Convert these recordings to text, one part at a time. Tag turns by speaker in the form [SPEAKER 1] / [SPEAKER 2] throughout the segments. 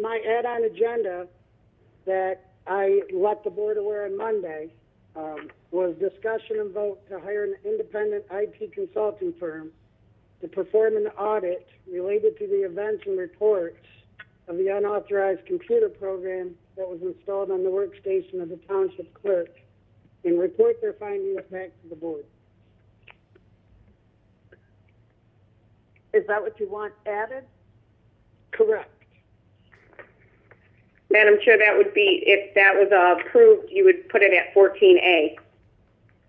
[SPEAKER 1] my add-on agenda that I let the board aware on Monday um, was discussion and vote to hire an independent IT consulting firm to perform an audit related to the events and reports of the unauthorized computer program that was installed on the workstation of the township clerk and report their findings back to the board.
[SPEAKER 2] Is that what you want added?
[SPEAKER 1] Correct.
[SPEAKER 3] Madam Chair, that would be, if that was uh, approved, you would put it at 14A,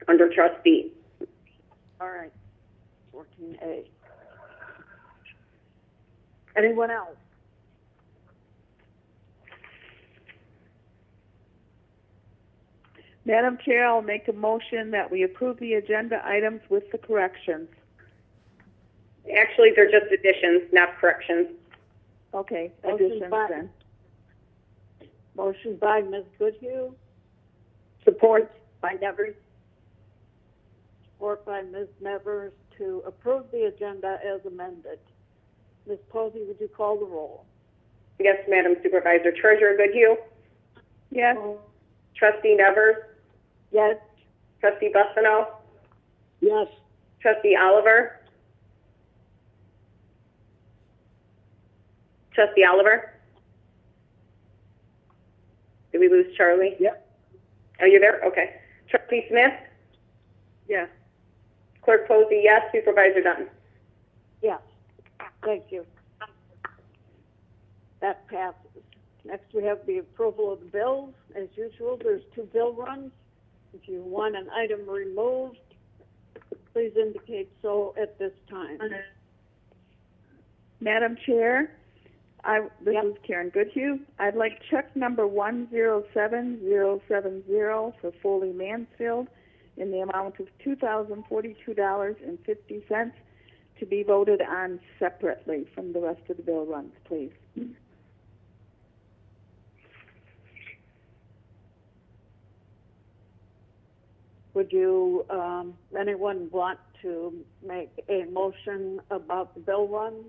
[SPEAKER 3] under trustee.
[SPEAKER 2] All right, fourteen A. Anyone else? Madam Chair, I'll make a motion that we approve the agenda items with the corrections.
[SPEAKER 3] Actually, they're just additions, not corrections.
[SPEAKER 2] Okay,
[SPEAKER 1] Motion
[SPEAKER 2] additions
[SPEAKER 1] by-
[SPEAKER 2] then. Motion by Ms. Goodhue,
[SPEAKER 1] Support.
[SPEAKER 2] by Nevers. Support by Ms. Nevers to approve the agenda as amended. Ms. Posey, would you call the roll?
[SPEAKER 3] Yes, Madam Supervisor. Treasurer Goodhue,
[SPEAKER 2] Yes.
[SPEAKER 3] trustee Nevers,
[SPEAKER 2] Yes.
[SPEAKER 3] trustee Bucino,
[SPEAKER 1] Yes.
[SPEAKER 3] trustee Oliver. Trustee Oliver? Did we lose Charlie?
[SPEAKER 1] Yep.
[SPEAKER 3] Are you there? Okay. Trustee Smith,
[SPEAKER 2] Yes.
[SPEAKER 3] clerk Posey, yes. Supervisor Dunn.
[SPEAKER 2] Yes. Thank you. That passes. Next, we have the approval of the bills. As usual, there's two bill runs. If you want an item removed, please indicate so at this time.
[SPEAKER 4] Madam Chair, I, this
[SPEAKER 2] Yep.
[SPEAKER 4] is Karen Goodhue. I'd like check number 107070 for Foley Mansfield in the amount of $2,042.50 to be voted on separately from the rest of the bill runs, please.
[SPEAKER 2] Would you, um, anyone want to make a motion about the bill runs?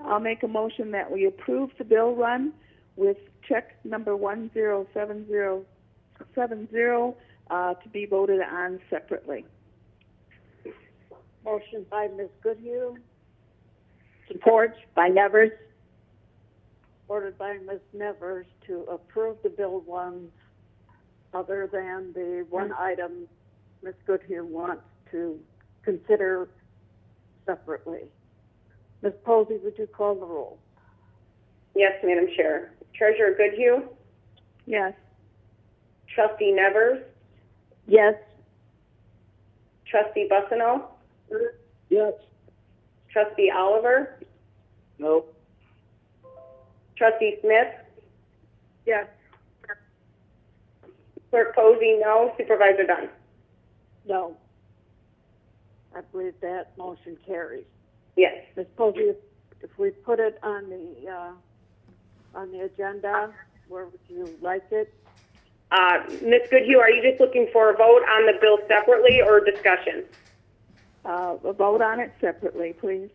[SPEAKER 4] I'll make a motion that we approve the bill run with check number 107070 uh, to be voted on separately.
[SPEAKER 2] Motion by Ms. Goodhue,
[SPEAKER 1] Support by Nevers.
[SPEAKER 2] ordered by Ms. Nevers to approve the bill ones other than the one item Ms. Goodhue wants to consider separately. Ms. Posey, would you call the roll?
[SPEAKER 3] Yes, Madam Chair. Treasurer Goodhue,
[SPEAKER 4] Yes.
[SPEAKER 3] trustee Nevers,
[SPEAKER 2] Yes.
[SPEAKER 3] trustee Bucino,
[SPEAKER 1] Yes.
[SPEAKER 3] trustee Oliver,
[SPEAKER 1] No.
[SPEAKER 3] trustee Smith. Yes. Clerk Posey, no. Supervisor Dunn.
[SPEAKER 2] No. I believe that motion carries.
[SPEAKER 3] Yes.
[SPEAKER 2] Ms. Posey, if- if we put it on the, uh, on the agenda, where would you like it?
[SPEAKER 3] Uh, Ms. Goodhue, are you just looking for a vote on the bill separately or discussion?
[SPEAKER 4] Uh, vote on it separately, please.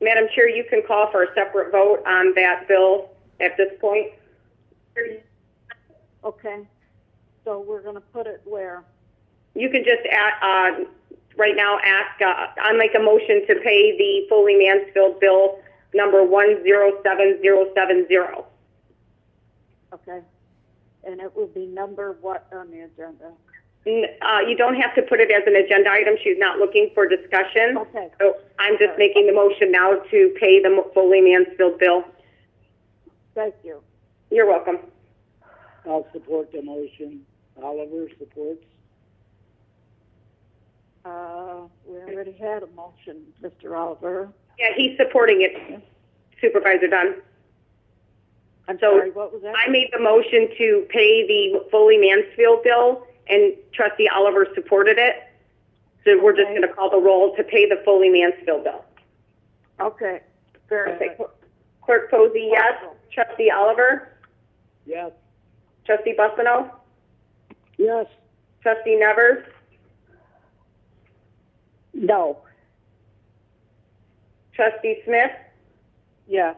[SPEAKER 3] Madam Chair, you can call for a separate vote on that bill at this point.
[SPEAKER 2] Okay, so we're gonna put it where?
[SPEAKER 3] You can just, a- uh, right now, ask, uh, I make a motion to pay the Foley Mansfield bill number 107070.
[SPEAKER 2] Okay. And it will be number what on the agenda?
[SPEAKER 3] N- Uh, you don't have to put it as an agenda item, she's not looking for discussion.
[SPEAKER 2] Okay,
[SPEAKER 3] So I'm just making the motion now to pay the Foley Mansfield bill.
[SPEAKER 2] thank you.
[SPEAKER 3] You're welcome.
[SPEAKER 1] I'll support the motion. Oliver supports.
[SPEAKER 2] Uh, we already had a motion, Mr. Oliver.
[SPEAKER 3] Yeah, he's supporting it, Supervisor Dunn.
[SPEAKER 2] I'm
[SPEAKER 3] So,
[SPEAKER 2] sorry, what was that?
[SPEAKER 3] I made the motion to pay the Foley Mansfield bill, and trustee Oliver supported it. So we're just
[SPEAKER 2] Okay.
[SPEAKER 3] going to call the roll to pay the Foley Mansfield bill.
[SPEAKER 2] Okay, very
[SPEAKER 3] Okay,
[SPEAKER 2] good.
[SPEAKER 3] Clerk Posey, yes. Trustee Oliver,
[SPEAKER 1] Yes.
[SPEAKER 3] trustee Bucino,
[SPEAKER 1] Yes.
[SPEAKER 3] trustee Nevers,
[SPEAKER 2] No.
[SPEAKER 3] trustee Smith,
[SPEAKER 2] Yeah,